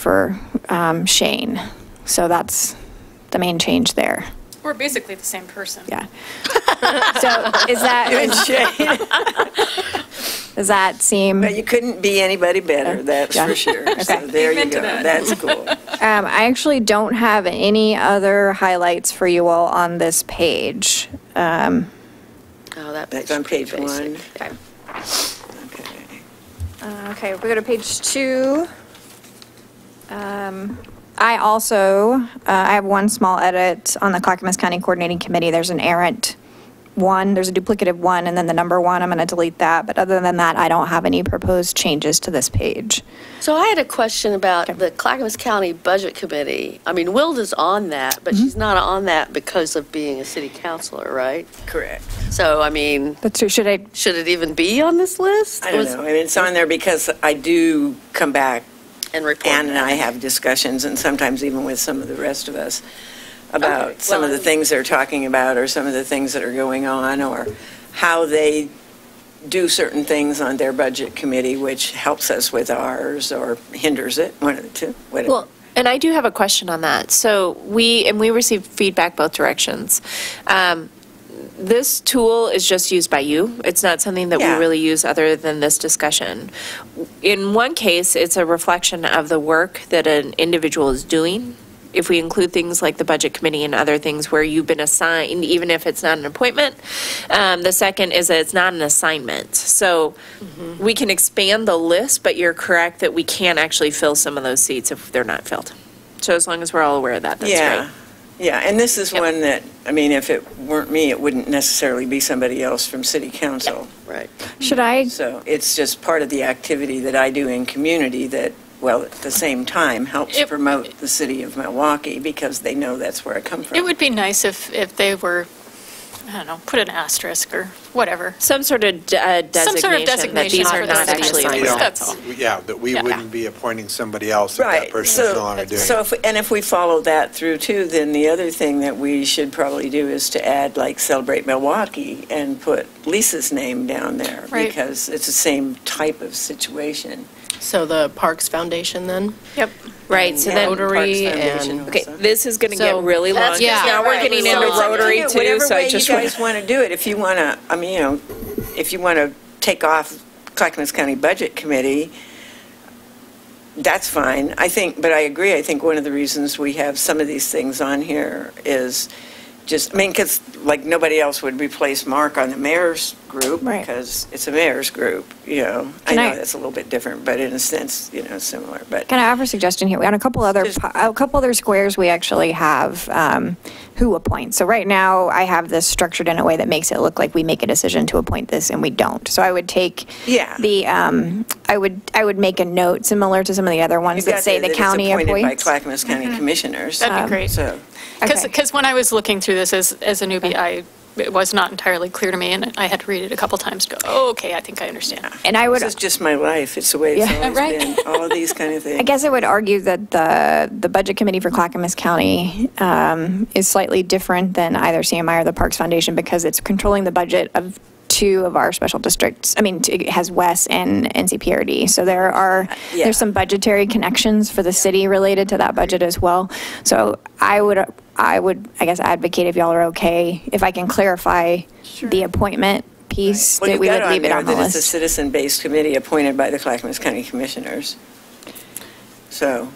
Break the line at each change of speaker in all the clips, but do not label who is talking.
for um, Shane. So that's the main change there.
We're basically the same person.
Yeah. So is that, does that seem,
But you couldn't be anybody better, that's
Yeah.
for sure.
Okay.
So there you
Amen to
go,
that.
that's cool.
um, I actually don't have any other highlights for you all on this page.
Oh, that
That's on page one.
Okay.
Okay.
Uh, Okay, we go to page two. Um, I also, uh, I have one small edit on the Clackamas County Coordinating Committee. There's an errant one, there's a duplicative one, and then the number one, I'm going to delete that. But other than that, I don't have any proposed changes to this page.
So I had a question about the Clackamas County Budget Committee. I mean, Wilda's on that, but she's not on that because of being a city councilor, right?
Correct.
So, I mean,
That's true, should I,
should it even be on this list?
I don't know, I mean, it's on there because I do come back,
And report.
Ann and I have discussions, and sometimes even with some of the rest of us,
Okay,
about some of
well,
the
I'm-
things they're talking about, or some of the things that are going on, or how they do certain things on their budget committee, which helps us with ours, or hinders it, one of the two, whatever.
Well, and I do have a question on that. So we, and we received feedback both directions. Um, This tool is just used by you. It's not something that we
Yeah.
really use other than this discussion. In one case, it's a reflection of the work that an individual is doing. If we include things like the budget committee and other things where you've been assigned, even if it's not an appointment. Um, The second is that it's not an assignment. So
Mm-hmm.
we can expand the list, but you're correct that we can actually fill some of those seats if they're not filled. So as long as we're all aware of that, that's
Yeah,
right.
yeah, and this is
Yep.
one that, I mean, if it weren't me, it wouldn't necessarily be somebody else from city council.
Right.
should I,
So it's just part of the activity that I do in community that, well, at the same time, helps
It-
promote the city of Milwaukee because they know that's where I come from.
It would be nice if, if they were, I don't know, put an asterisk or whatever.
Some sort of de- uh,
Some sort of
designation that
designation
these
for
are not
those
actually
kinds of
We
things.
assigned.
That's all.
don't, yeah, that we
Yeah.
wouldn't be appointing somebody else if that
Right,
person is no
so,
longer doing
so
it.
if, and if we follow that through too, then the other thing that we should probably do is to add like Celebrate Milwaukee and put Lisa's name down there.
Right.
Because it's the same type of situation.
So the Parks Foundation then?
Yep.
Right, so
Yeah.
then,
Parks
Rotary
Foundation
and-
okay,
also.
this is going to
So-
get really long.
That's
because
yeah,
Now we're
right.
getting
So
into
it's up to
Rotary
you,
too, so I
Whatever way
just. wanna-
you guys want to do it, if you want to, I mean, you know, if you want to take off Clackamas County Budget Committee, that's fine. I think, but I agree, I think one of the reasons we have some of these things on here is just, I mean, because like nobody else would replace Mark on the mayor's group
Right.
because it's a mayor's group, you know. I
Can
know
I-
that's a little bit different, but in a sense, you know, similar, but.
can I offer a suggestion here? On a couple other,
Just-
po- a couple other squares, we actually have um, who appoints. So right now, I have this structured in a way that makes it look like we make a decision to appoint this and we don't. So I would take
Yeah.
the, um, I would, I would make a note similar to some of the other ones that say the county Mm-hmm.
It's appointed by
appoints.
Clackamas County Commissioners. um,
That'd be great.
So,
Because,
Okay.
because when I was looking through this as, as a newbie, I, it was not entirely clear to me, and I had to read it a couple times to go, oh, okay, I think I understand.
And I would,
This is just my life. It's the way it's
Yeah.
always
Right.
been. All of these kind of things.
I guess I would argue that the, the Budget Committee for Clackamas County um, is slightly different than either CMI or the Parks Foundation because it's controlling the budget of two of our special districts. I mean, t- it has WES and NCPRD. So there are,
Uh, Yeah.
there's some budgetary connections for the city related to that budget as well. So I would, I would, I guess, advocate if y'all are okay, if I can clarify the appointment piece,
Well,
that
you've
we
got
would leave it
there
on the
that It's a
list.
citizen-based committee appointed by the Clackamas County Commissioners. So,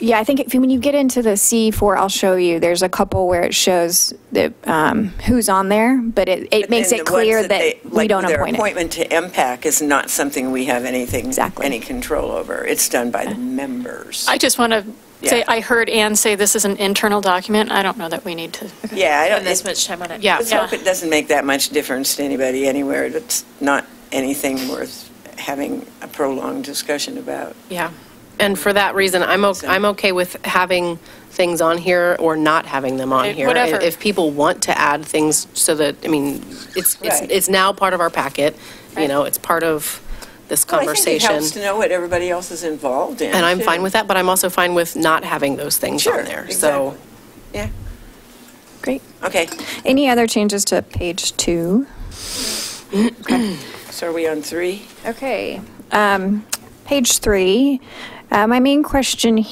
Yeah, I think if, when you get into the C4, I'll show you, there's a couple where it shows the, um, who's on there, but it, it
but
makes
then
it
the ones
clear that
they-
we
like
don't appoint
Their
it.
appointment to MPAC is not something we have anything,
Exactly.
any control over. It's done by the members.
I just want to say,
Yeah.
I heard Ann say this is an internal document. I don't know that we need to.
Yeah, I don't,
Spend this
it-
much time on it.
Yeah.
let's hope it doesn't make that much difference to anybody anywhere. It's not anything worth having a prolonged discussion about.
Yeah. And for that reason, I'm, o- I'm okay with having things on here or not having them on
Right,
here.
Eh, whatever.
If- If people want to add things so that, I mean, it's, it's,
Right.
it's now part of our packet, you
Right.
know, it's part of this
Well, Oh, I
conversation.
think it helps to know what everybody else is involved in.
And I'm
too.
fine with that, but I'm also fine with not having those things
Sure,
on there. So
exactly. Yeah,
Great.
okay.
Any other changes to page two?
So are we on three?
Okay. Um, page three, uh, my main question